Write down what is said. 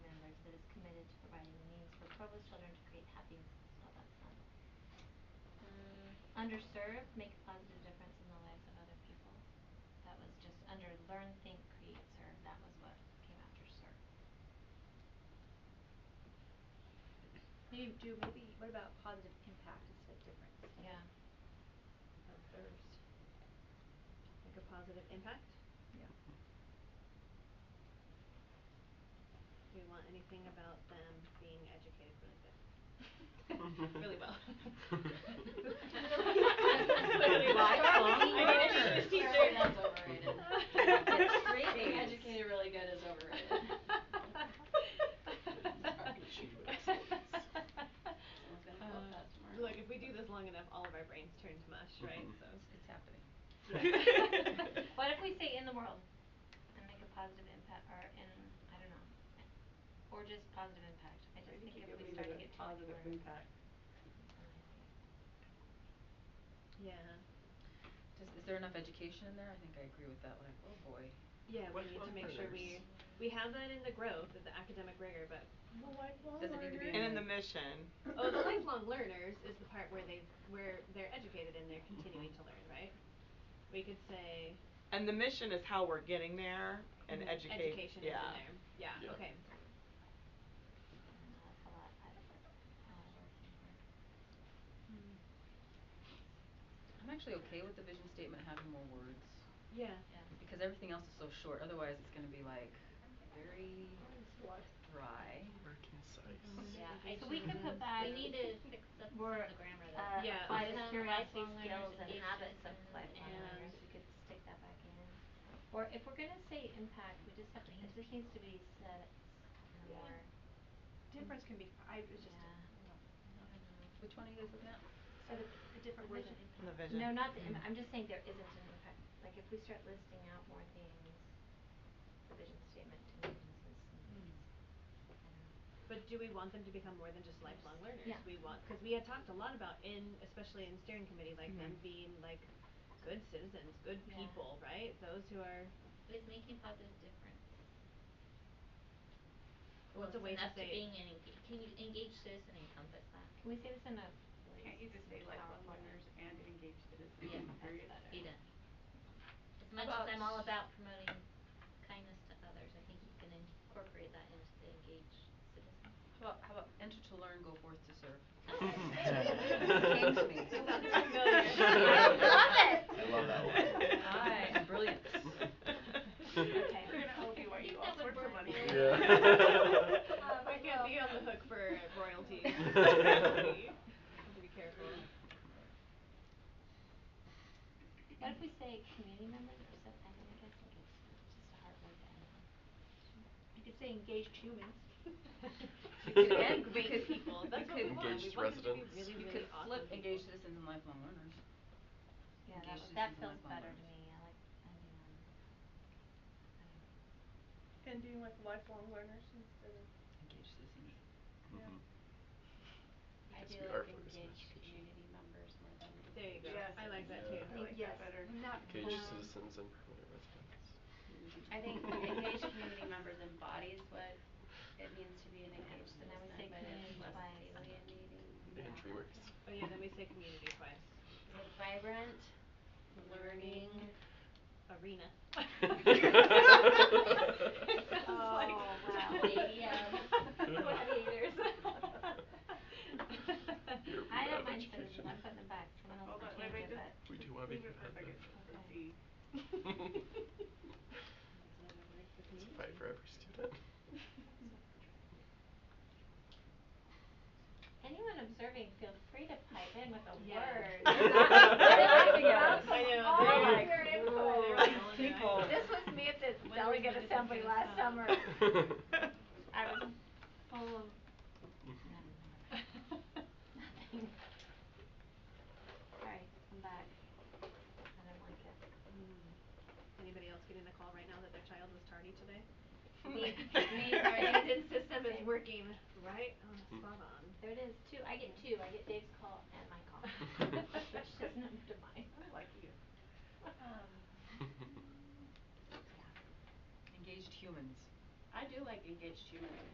by any means for Provo's children to create happiness. No, that's not it. Mm, underserved, make a positive difference in the lives of other people. That was just under learn, think, create, serve. That was what came after serve. Maybe do maybe what about positive impact instead of difference? Yeah. Or first. Make a positive impact? Yeah. Do we want anything about them being educated really good? really well. Clearly watchful. I need a English Clearly teacher. that's overrated. Get straight Thanks. educated really good is overrated. Someone's gonna quote Uh, that tomorrow. Look, if we do this long enough, all of our brains turn to mush, right? Mm-hmm. Mhm. So It's happening. What if we say in the world and make a positive impact or in, I don't know, or just positive impact. I just think if we start to get to like where- Yeah. Does, is there enough education in there? I think I agree with that, like, oh boy. Yeah, we What need to about make sure we learners? we have that in the growth of the academic rigor, but Doesn't need to be And in in the the- mission. oh, the lifelong learners is the part where they where they're educated and they're Mm-hmm. continuing to learn, right? We could say And the mission is how we're getting there and Mhm. educate, yeah. education is in there. Yeah, Yeah. okay. No, that's a lot. I don't know. Mm. I'm actually okay with the vision statement having more words, Yeah. Yeah. because everything else is so short, otherwise it's gonna be like very dry. Very concise. Yeah, Yeah, I so we think could put back. We need to fix up some We're, of the grammar uh, though. Yeah. apply the Some curiosity lifelong skills learners and issues habits of lifelong and- learners, we could stick that back in. Or if we're gonna say impact, we just have to, it just needs to be said in a Yeah. more, Difference can be, I was just, Yeah. I don't know. Which one are you guys looking at? so the, the different words and In the impact. vision. No, not the, im- I'm just saying there isn't an impact, like if we start listing out more things, the vision statement to me just is, Hmm. I don't know. But do we want them to become more than just lifelong learners? Yeah. We want, cause we had talked a lot about in, especially in steering committee, like them Mm-hmm. Mhm. being like good citizens, good Yeah. people, right? Those who are, Is making positive difference. well, it's a way to enough say it. being an enga- can you engage citizen encompass that? Can we say this in a Can't you just say lifelong PowerPoint? learners and engaged citizens? Yeah, period? better. Be done. As much as About- I'm all about promoting kindness to others, I think you can incorporate that into the engage citizen. How about, how about enter to learn, go forth to serve? Came to me. It sounds I love it. I love that one. Aye, brilliant. Okay, we're gonna owe you, are I you think all that would sorts of work. money? Yeah. Um, I can't be on the hook for royalties. Have to be careful. What if we say community members or something, I mean, I guess like it's just a hard word to end on. You could say engaged humans. We could end You great could- people, you that's what could- we want, we Engaged want them to be residents. really, You really could awesome flip people. engaged citizens and lifelong learners. Yeah, that Engage was, that citizens feels and lifelong better to learners. me, I um, like ending on, I don't know. Ending with lifelong learners instead of. Engaged citizens. Mhm. I do Because we are like focused on engage education. community members more than. There you go, Yes. I like that Yeah. too. I I like Yes. that better. Not Engage um, citizens and permanent residents. I think engaged community members embodies what it means to be an engaged And citizen, then we but say it's community less twice. alienating. And dreamers. Oh yeah, then we say community twice. It's Vibrant, learning, Arena. Oh, wow. Stadium. Gladiators. You're I bad don't at mind education. citizens, I'm putting them back, someone else Hold on, can wait, wait, change it, just. but. We do wanna leave it make it for a happen. second, so Okay. see. It's a fight for every student. Anyone observing, feel free to pipe in with a Yeah. word. I know, All they're of like, your input. "Whoa, People. people." This was me at the When delegate was it assembly gonna last stop? summer. I was full of nothing. Sorry, I'm back. I don't like it. Anybody else getting a call right now that their child was tardy today? Me- Me, our attendance system is working right on, Mm. spot on. There it is, two, I get two, I get Dave's call and my call, which doesn't have to mine. I like you. Um, Engaged humans. I do like engaged humans,